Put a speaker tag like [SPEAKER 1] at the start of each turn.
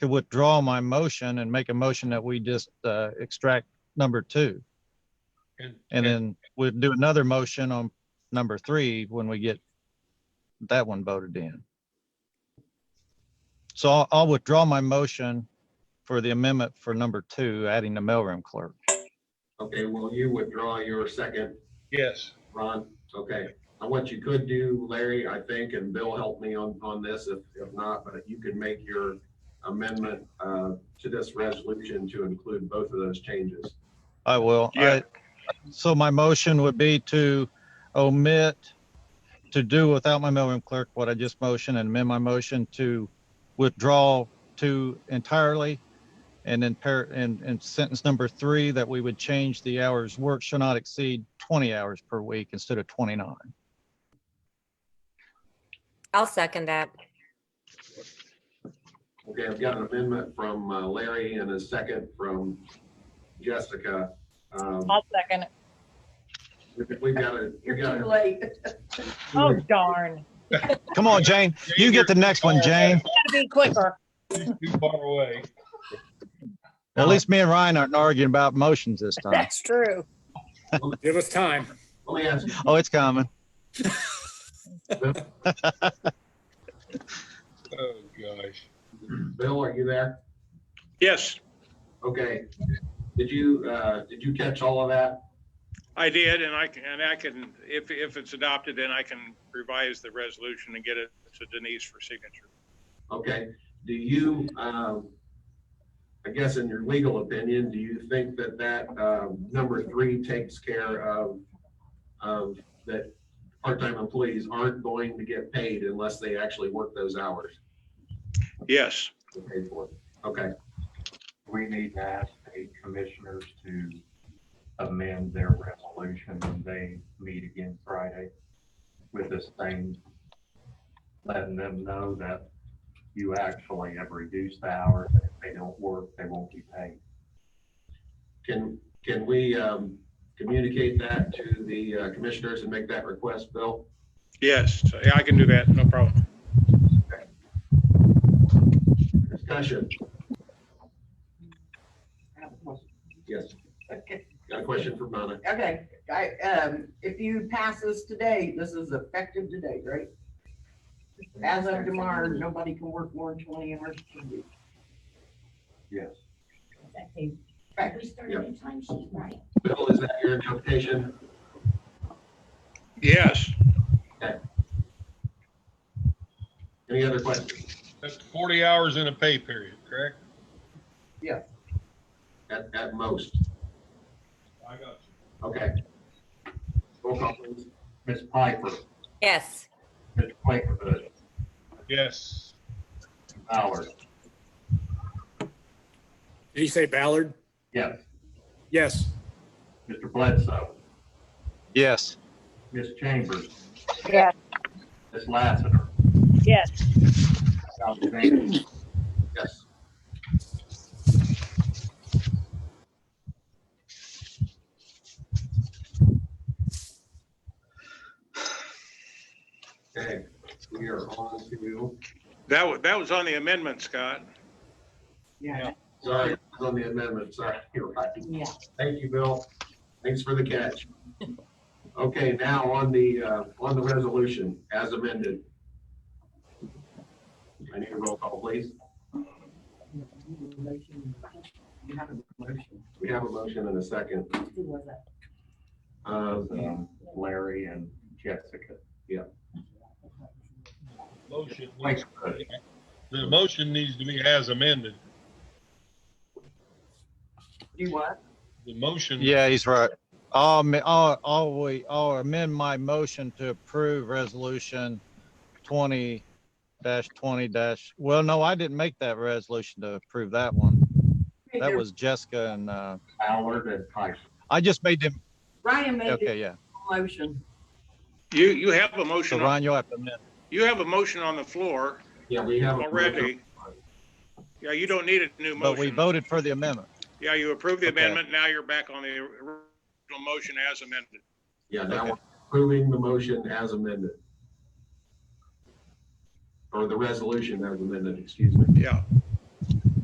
[SPEAKER 1] to withdraw my motion and make a motion that we just uh, extract number two. And then we'll do another motion on number three when we get that one voted in. So I'll- I'll withdraw my motion for the amendment for number two, adding the mailroom clerk.
[SPEAKER 2] Okay, well, you withdraw your second,
[SPEAKER 3] Yes.
[SPEAKER 2] Ron. Okay. Now, what you could do, Larry, I think, and Bill helped me on, on this if, if not, but you could make your amendment uh, to this resolution to include both of those changes.
[SPEAKER 1] I will.
[SPEAKER 3] Yeah.
[SPEAKER 1] I- So my motion would be to omit, to do without my mailroom clerk what I just motioned and amend my motion to withdraw two entirely. And then par, and, and sentence number three, that we would change the hours work shall not exceed 20 hours per week instead of 29.
[SPEAKER 4] I'll second that.
[SPEAKER 2] Okay, I've got an amendment from uh, Larry and a second from Jessica. Um,
[SPEAKER 5] I'll second. it.
[SPEAKER 2] we- We've got to,
[SPEAKER 6] You're
[SPEAKER 2] we've got
[SPEAKER 6] too
[SPEAKER 2] to.
[SPEAKER 6] late.
[SPEAKER 5] Oh, darn.
[SPEAKER 1] Come on, Jane. You get the next one, Jane.
[SPEAKER 5] Gotta be quicker.
[SPEAKER 3] He's too far away.
[SPEAKER 1] At least me and Ryan aren't arguing about motions this time.
[SPEAKER 5] That's true.
[SPEAKER 7] Give us time.
[SPEAKER 2] Let me ask you,
[SPEAKER 1] Oh, it's coming.
[SPEAKER 3] Oh, gosh.
[SPEAKER 2] Bill, are you there?
[SPEAKER 8] Yes,
[SPEAKER 2] Okay. Did you, uh, did you catch all of that?
[SPEAKER 8] I did, and I can, and I can, if, if it's adopted, then I can revise the resolution and get it to Denise for signature.
[SPEAKER 2] Okay. Do you, um, I guess in your legal opinion, do you think that that, um, number three takes care of, of that part-time employees aren't going to get paid unless they actually work those hours?
[SPEAKER 8] Yes,
[SPEAKER 2] to pay for it. Okay,
[SPEAKER 9] we need to ask the commissioners to amend their resolution when they meet again Friday with this thing, letting them know that you actually have reduced the hours. and If they don't work, they won't be paid.
[SPEAKER 2] can, can we um, communicate that to the uh, commissioners and make that request, Bill?
[SPEAKER 8] yes, Yeah, I can do that, no problem.
[SPEAKER 2] Discussion, yes.
[SPEAKER 6] Okay,
[SPEAKER 2] Got a question for Donna?
[SPEAKER 6] Okay, I, um, if you pass this today, this is effective today, right? As of tomorrow, nobody can work more than twenty hours per week.
[SPEAKER 9] Yes.
[SPEAKER 6] Right.
[SPEAKER 10] We started a time sheet, right?
[SPEAKER 2] Bill, is that your interpretation?
[SPEAKER 8] Yes,
[SPEAKER 2] Any other questions?
[SPEAKER 3] That's 40 hours in a pay period, correct?
[SPEAKER 2] At, at most,
[SPEAKER 3] I got you.
[SPEAKER 2] okay. Roll call, please.
[SPEAKER 9] Ms. Piper,
[SPEAKER 4] Yes.
[SPEAKER 9] Ms. Quakerhood,
[SPEAKER 3] Yes.
[SPEAKER 9] Ballard,
[SPEAKER 7] Did you say Ballard?
[SPEAKER 9] yes.
[SPEAKER 7] Yes.
[SPEAKER 9] Mr. Bledsoe,
[SPEAKER 1] Yes.
[SPEAKER 9] Ms. Chambers,
[SPEAKER 5] Yes.
[SPEAKER 9] Ms. Lassiter,
[SPEAKER 5] Yes.
[SPEAKER 9] Dr. Van,
[SPEAKER 2] Yes. Okay, we are on to,
[SPEAKER 8] that was, that was on the amendment, Scott.
[SPEAKER 6] Yeah.
[SPEAKER 2] sorry, it's on the amendment, sorry, you're right.
[SPEAKER 6] Yeah.
[SPEAKER 2] Thank you, Bill. Thanks for the catch. Okay, now on the, uh, on the resolution as amended. I need a roll call, please.
[SPEAKER 6] You have a motion.
[SPEAKER 2] We have a motion and a second.
[SPEAKER 6] Who was that?
[SPEAKER 2] Uh,
[SPEAKER 9] um, Larry and Jessica.
[SPEAKER 3] Motion. needs-
[SPEAKER 9] Quakerhood,
[SPEAKER 3] The motion needs to be as amended.
[SPEAKER 6] Do what?
[SPEAKER 3] The motion.
[SPEAKER 1] Yeah, he's right. I'll, ma- I'll, I'll, we- I'll amend my motion to approve resolution twenty dash twenty dash, well, no, I didn't make that resolution to approve that one. That was Jessica and, uh,
[SPEAKER 9] Ballard and Piper.
[SPEAKER 1] I just made them,
[SPEAKER 6] Ryan made the
[SPEAKER 1] okay, yeah.
[SPEAKER 6] motion.
[SPEAKER 8] You, you have a
[SPEAKER 1] So
[SPEAKER 8] motion, on-
[SPEAKER 1] Ryan, you'll have to amend.
[SPEAKER 8] you have a motion on the floor
[SPEAKER 2] Yeah, we have. a-
[SPEAKER 8] already. Yeah, you don't need a new
[SPEAKER 1] But we
[SPEAKER 8] motion.
[SPEAKER 1] voted for the amendment.
[SPEAKER 8] Yeah, you approved the
[SPEAKER 1] Okay.
[SPEAKER 8] amendment, now you're back on the original motion as amended.
[SPEAKER 2] Yeah, now
[SPEAKER 1] Okay.
[SPEAKER 2] we're approving the motion as amended. Or the resolution as amended, excuse me.
[SPEAKER 8] Yeah,